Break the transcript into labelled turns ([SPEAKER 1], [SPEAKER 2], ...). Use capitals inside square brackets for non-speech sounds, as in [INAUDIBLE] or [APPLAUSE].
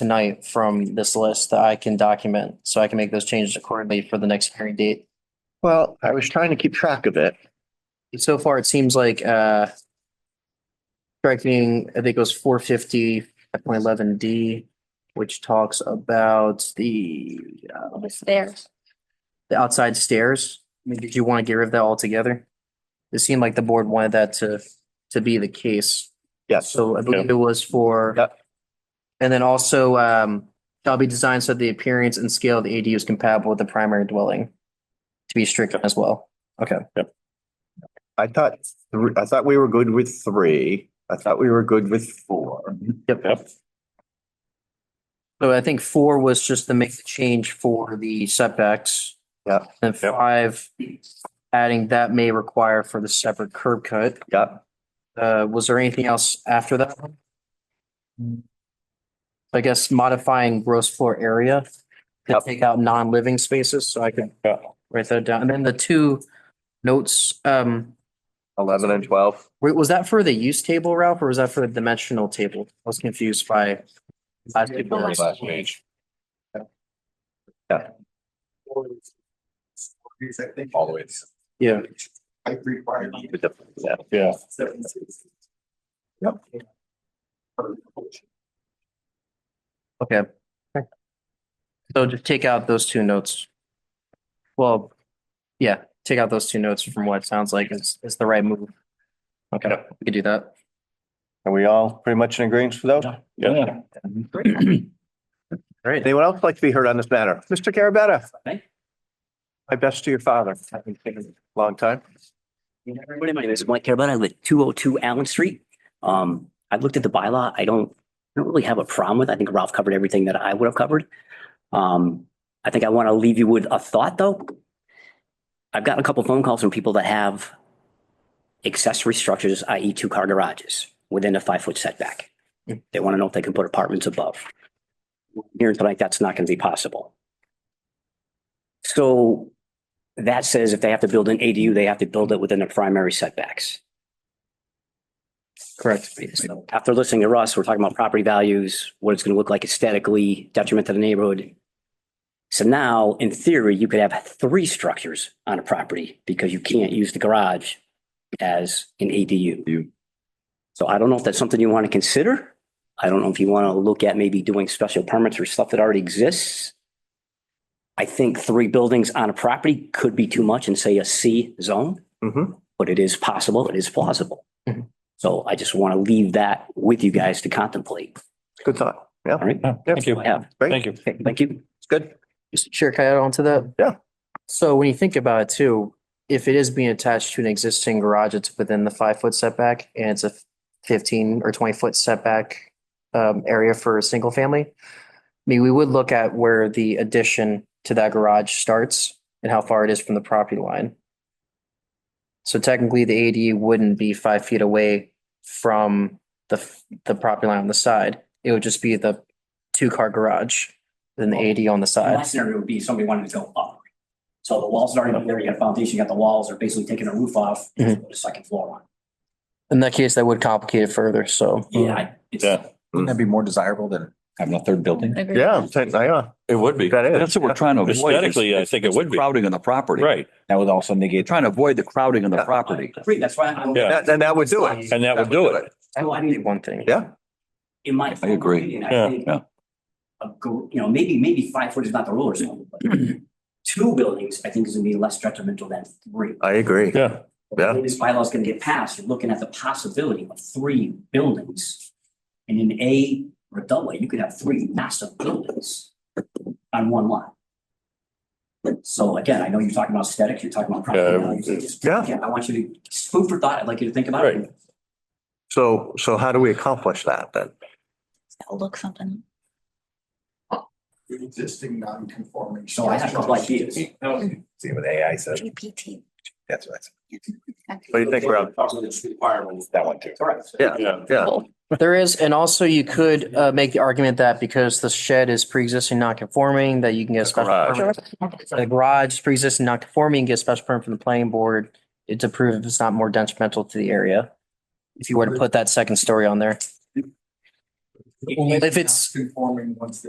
[SPEAKER 1] tonight from this list that I can document, so I can make those changes accordingly for the next hearing date.
[SPEAKER 2] Well, I was trying to keep track of it.
[SPEAKER 1] So far, it seems like, uh, striking, I think it was four fifty, point eleven D, which talks about the, uh,
[SPEAKER 3] It was there.
[SPEAKER 1] the outside stairs. I mean, did you want to get rid of that altogether? It seemed like the board wanted that to, to be the case.
[SPEAKER 2] Yes,
[SPEAKER 1] So I believe it was for.
[SPEAKER 2] Yep.
[SPEAKER 1] And then also, um, shall be designed so the appearance and scale of the ADU is compatible with the primary dwelling. To be stricken as well. Okay.
[SPEAKER 2] I thought, thr- I thought we were good with three. I thought we were good with four.
[SPEAKER 4] Yep.
[SPEAKER 1] So I think four was just to make the change for the setbacks.
[SPEAKER 2] Yep.
[SPEAKER 1] And
[SPEAKER 4] Yep.
[SPEAKER 1] five, adding that may require for the separate curb cut.
[SPEAKER 2] Yep.
[SPEAKER 1] Uh, was there anything else after that? one? I guess modifying gross floor area to
[SPEAKER 2] Yep.
[SPEAKER 1] take out non-living spaces, so I could
[SPEAKER 4] Yeah.
[SPEAKER 1] write that down. And then the two notes, um,
[SPEAKER 2] Eleven and twelve.
[SPEAKER 1] wait, was that for the use table, Ralph, or was that for the dimensional table? I was confused by. last
[SPEAKER 3] The last
[SPEAKER 1] paper.
[SPEAKER 4] page.
[SPEAKER 2] All the way. to-
[SPEAKER 1] Yeah,
[SPEAKER 2] with the- yeah.
[SPEAKER 4] Yeah.
[SPEAKER 1] okay. So just take out those two notes. Well, yeah, take out those two notes from what it sounds like is, is the right move. Okay, we could do that.
[SPEAKER 2] Are we all pretty much in agreement with those?
[SPEAKER 4] Yeah.
[SPEAKER 1] All right.
[SPEAKER 2] Anyone else like to be heard on this matter? Mr. Carabetta?
[SPEAKER 5] Hey.
[SPEAKER 2] My best to your father. Haven't seen him in a Long time.
[SPEAKER 5] Everybody, my name is Mike Carabana. I live at two oh two Allen Street. Um, I've looked at the bylaw. I don't, I don't really have a problem with. it. I think Ralph covered everything that I would have covered. Um, I think I want to leave you with a thought, though. I've gotten a couple phone calls from people that have accessory structures, i.e. two-car garages, within a five-foot setback. They want to know if they can put apartments above. Here tonight, that's not going to be possible. So that says if they have to build an ADU, they have to build it within their primary setbacks.
[SPEAKER 1] Correct.
[SPEAKER 5] So After listening to Russ, we're talking about property values, what it's going to look like aesthetically, detriment to the neighborhood. So now, in theory, you could have three structures on a property because you can't use the garage as an ADU. So I don't know if that's something you want to consider. I don't know if you want to look at maybe doing special permits or stuff that already exists. I think three buildings on a property could be too much and say a C zone
[SPEAKER 2] Mm-hmm.
[SPEAKER 5] but it is possible, it is plausible.
[SPEAKER 4] Mm-hmm.
[SPEAKER 1] Mhm.
[SPEAKER 5] So I just want to leave that with you guys to contemplate.
[SPEAKER 2] Good thought. Yeah,
[SPEAKER 5] All right.
[SPEAKER 4] Thank you.
[SPEAKER 5] Yeah,
[SPEAKER 2] great.
[SPEAKER 4] Thank you.
[SPEAKER 5] Okay, thank you.
[SPEAKER 2] It's good.
[SPEAKER 1] Mr. Chair, can I add on to that?
[SPEAKER 2] Yeah.
[SPEAKER 1] So when you think about it too, if it is being attached to an existing garage, it's within the five foot setback and it's a fifteen or twenty foot setback um, area for a single family. I mean, we would look at where the addition to that garage starts and how far it is from the property line. So technically, the ADU wouldn't be five feet away from the f- the property line on the side. It would just be the two car garage, then the ADU on the side.
[SPEAKER 5] Last scenario would be somebody wanted to go up. So the walls are already there, you got foundation, you got the walls, they're basically taking a roof off,
[SPEAKER 4] Mm-hmm.
[SPEAKER 1] Mhm.
[SPEAKER 5] put a second floor on.
[SPEAKER 1] In that case, that would complicate it further, so.
[SPEAKER 5] Yeah, I- it's,
[SPEAKER 4] Yeah.
[SPEAKER 6] Wouldn't that be more desirable than having a third building?
[SPEAKER 2] Yeah, yeah.
[SPEAKER 6] It would be.
[SPEAKER 2] That is.
[SPEAKER 6] That's what we're trying to avoid. is-
[SPEAKER 4] Aesthetically, I think it would be.
[SPEAKER 6] Crowding on the property.
[SPEAKER 4] Right.
[SPEAKER 6] That would also negate, trying to avoid the crowding on the property.
[SPEAKER 5] Free, that's why I'm.
[SPEAKER 4] Yeah.
[SPEAKER 2] That- Then that would do it.
[SPEAKER 4] And that would do it.
[SPEAKER 5] So I mean,
[SPEAKER 1] One thing.
[SPEAKER 2] Yeah,
[SPEAKER 5] in my.
[SPEAKER 6] I agree.
[SPEAKER 5] opinion,
[SPEAKER 4] Yeah,
[SPEAKER 5] I think.
[SPEAKER 6] yeah.
[SPEAKER 5] A, go- you know, maybe, maybe five foot is not the rule or something,
[SPEAKER 6] [CLEARS THROAT]
[SPEAKER 5] but two buildings, I think is gonna be less detrimental than three.
[SPEAKER 2] I agree.
[SPEAKER 4] Yeah.
[SPEAKER 2] Yeah.
[SPEAKER 5] When This bylaw is gonna get passed, you're looking at the possibility of three buildings. And in A or double, A, you could have three massive buildings on one lot. So again, I know you're talking about aesthetics, you're talking about property
[SPEAKER 4] Yeah,
[SPEAKER 5] values. I just-
[SPEAKER 2] yeah.
[SPEAKER 5] I want you to, just food for thought, I'd like you to think about it.
[SPEAKER 4] Right.
[SPEAKER 2] So, so how do we accomplish that then?
[SPEAKER 3] I'll look something.
[SPEAKER 7] existing non-conforming.
[SPEAKER 5] So I have a couple ideas.
[SPEAKER 6] See what AI says.
[SPEAKER 3] GPT.
[SPEAKER 6] That's what I said.
[SPEAKER 2] What do you think, Rob?
[SPEAKER 6] That one too.
[SPEAKER 5] Correct.
[SPEAKER 2] Yeah, yeah.
[SPEAKER 1] There is, and also you could uh make the argument that because the shed is pre-existing non-conforming, that you can get a
[SPEAKER 6] The
[SPEAKER 1] special
[SPEAKER 6] garage.
[SPEAKER 1] permit. The garage is pre-existing non-conforming, get a special permit from the planning board. It's approved if it's not more detrimental to the area. If you were to put that second story on there. If it's-
[SPEAKER 7] Conforming once